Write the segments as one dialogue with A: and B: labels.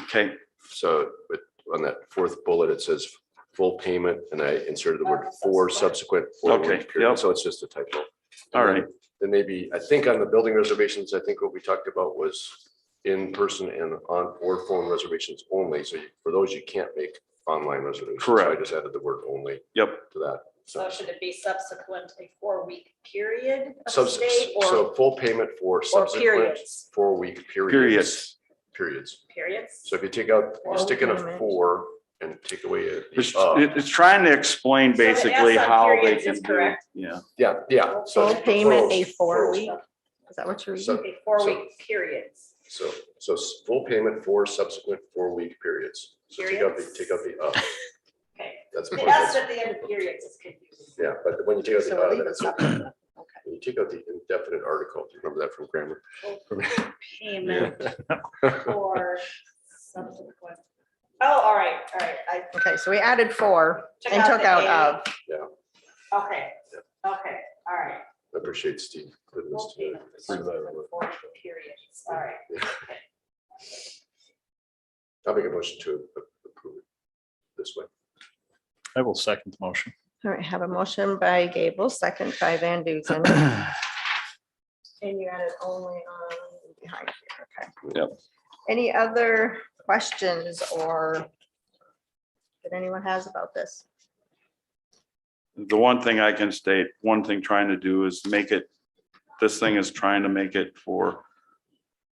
A: Okay,
B: So, but on that fourth bullet, it says full payment, and I inserted the word for subsequent. four
A: Okay,
B: month period,
A: yep.
B: So it's just a typo.
A: all right.
B: Then maybe, I think on the building reservations, I think what we talked about was in person and on or phone reservations only. So you- for those, you can't make online reservations. So I
A: Correct.
B: just added the word only.
A: Yep.
B: To that.
C: So should it be subsequent a four-week period of
B: Subs-
C: stay or,
B: So full payment for
C: or
B: subsequent
C: periods?
B: four-week periods.
A: Periods.
B: Periods.
C: Periods?
B: So if you take out, you
C: Or
B: stick in
C: we can
B: a
C: amend.
B: four and take away a.
A: It's,
B: uh,
A: it- it's trying to explain
C: So the
A: basically
C: S on
A: how they
C: periods
A: can
C: is
A: do, it.
C: correct.
A: yeah.
B: Yeah, yeah. so
D: Full payment, a
B: plurals,
D: four
B: plurals.
D: week? Is that what you're reading?
B: So-
C: A four-week periods.
B: So, so s- full payment for subsequent four-week periods. So take out the,
C: Periods?
B: take out the up.
C: Okay.
B: That's.
C: The S at the end of periods is confusing.
B: Yeah, but when you take out the,
D: So I
B: uh,
D: think
B: then
D: it's
B: it's-
D: not- okay.
B: when you take out the indefinite article, do you remember that from grammar?
C: Payment for subsequent. Oh, all right, all right. I
D: Okay, so we added four and took
C: the
D: out
C: A.
D: of.
C: Okay, okay, all right.
B: I appreciate Steve. putting this
C: Full
B: together.
C: payment for
B: Three letter
C: subsequent
B: word.
C: four-week Periods, all right.
B: I'll make a motion to a- approve it this way.
E: I will second the motion.
D: All right, have a motion by Gable, second by Van Duzen. And you added only on behind here, okay.
A: Yep.
D: Any other questions or that anyone has about this?
A: The one thing I can state, one thing trying to do is make it, this thing is trying to make it for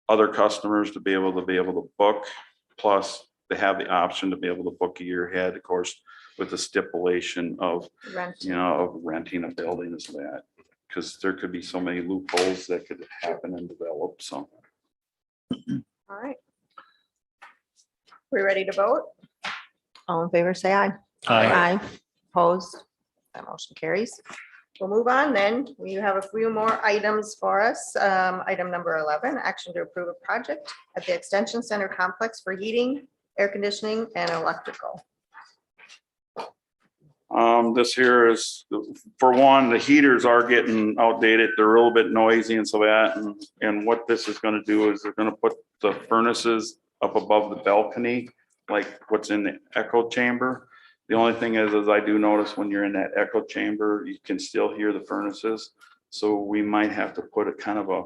A: other customers to be able to be able to book. Plus, they have the option to be able to book a year ahead, of course, with the stipulation of
D: Rent,
A: you know, of renting a building is that, because there could be so many loopholes that could happen and develop, so.
D: all right. We ready to vote? All in favor, say aye.
E: Aye.
D: Aye. Opposed? That motion carries. We'll move on then. We have a few more items for us. Um, Item number 11, action to approve a project at the Extension Center complex for heating, air conditioning, and electrical.
A: Um, this here is, for one, the heaters are getting outdated, they're a little bit noisy and so that, and, and what this is gonna do is they're gonna put the furnaces up above the balcony, like what's in the echo chamber. The only thing is, is I do notice when you're in that echo chamber, you can still hear the furnaces, so we might have to put a kind of a,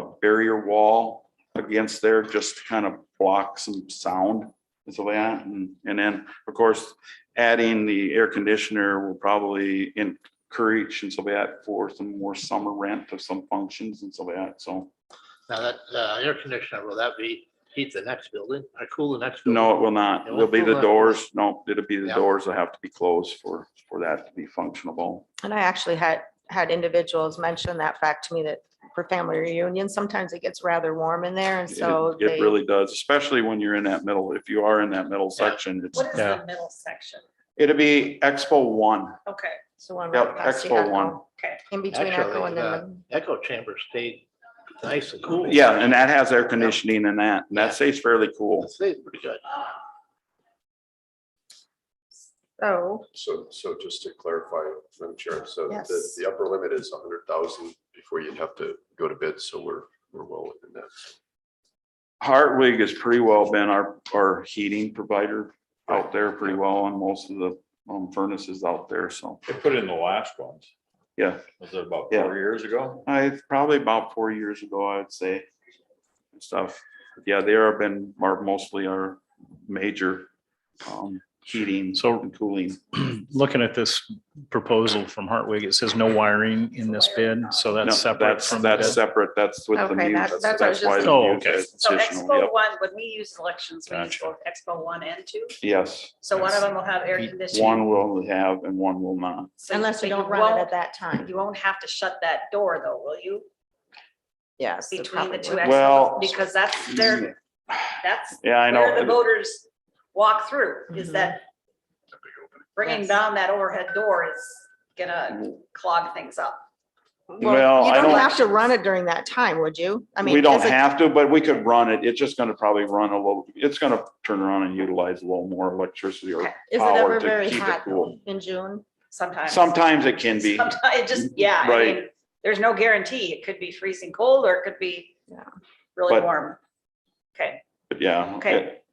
A: a barrier wall against there, just to kind of block some sound and so that, and, and then, of course, adding the air conditioner will probably encourage and so that for some more summer rent of some functions and so that, so.
F: Now that, uh, air conditioner, will that be heat the next building or cool the next? building?
A: No, it will not. It'll be the doors. No, it'll be the
F: Yeah.
A: doors that have to be closed for, for that to be functional.
D: And I actually had, had individuals mention that fact to me that for family reunions, sometimes it gets rather warm in there and
A: It-
D: so they,
A: It really does, especially when you're in that middle, if you are in that middle
F: Yeah.
A: section, it's,
C: What is the
E: Yeah.
C: middle section?
A: it'll be Expo One.
C: Okay,
D: so one
A: Yep,
D: right past the
A: Expo
D: Echo,
A: one.
C: okay.
D: In between Echo
F: Actually,
D: and then
F: uh,
D: the-
F: Echo chamber stayed nice and cool.
A: Yeah, and that has air conditioning and that, and that stays fairly cool.
F: It Stayed pretty good.
D: so,
B: So, so just to clarify, Madam Chair, so the,
D: Yes.
B: the upper limit is a hundred thousand before you'd have to go to bid, so we're, we're well within that.
A: Hartwig has pretty well been our, our heating provider out there pretty well on most of the um, furnaces out there, so.
G: They put in the last ones.
A: Yeah.
G: Was it about
A: Yeah.
G: four years ago?
A: I, probably about four years ago, I'd say, and stuff. Yeah, they are been, are mostly our major um, heating
E: So-
A: and cooling.
E: Looking at this proposal from Hartwig, it says no wiring in this bid, so
A: No,
E: that's separate
A: That's,
E: from the
A: that's
E: bid.
A: separate, that's with the
D: Okay,
A: mute,
D: that's- that's what I was
A: that's why.
D: just
A: the
E: Oh,
A: mute
E: okay.
A: is
C: So
A: additional, yep.
C: Expo one, when we use elections, we use
E: Gotcha.
C: both Expo one and two.
A: Yes,
C: So one of
E: Yes.
C: them will have air conditioning.
A: one will have and one will not.
C: So-
D: unless
C: so
D: you don't run it at
C: won't-
D: that time,
C: You won't have to shut that door though, will you?
D: yes. it
C: Between the
D: probably
C: two
D: would.
C: exits?
A: Well-
C: Because that's their, that's
A: Yeah, I
C: where the
A: know,
C: voters walk through, is that bringing
D: Mm-hmm. Yes.
C: down that overhead door is
A: Mm-hmm.
C: gonna clog things up.
A: Well,
D: You
A: I
D: don't
A: don't-
D: have to run it during that time, would you? I mean,
A: we don't
D: is it-
A: have to, but we could run it, it's just gonna probably run a little, it's gonna turn around and utilize a little more electricity or
D: Is it
A: power
D: ever
A: to
D: very
A: keep it
D: hot
A: cool.
D: in June?
C: Sometimes.
A: Sometimes it can be.
C: Sometimes, it just, yeah, I
A: Right.
C: mean, there's no guarantee. It could be freezing cold or it could be
D: Yeah.
C: really
A: But-
C: warm. Okay,
A: But yeah.
C: Okay.
A: it-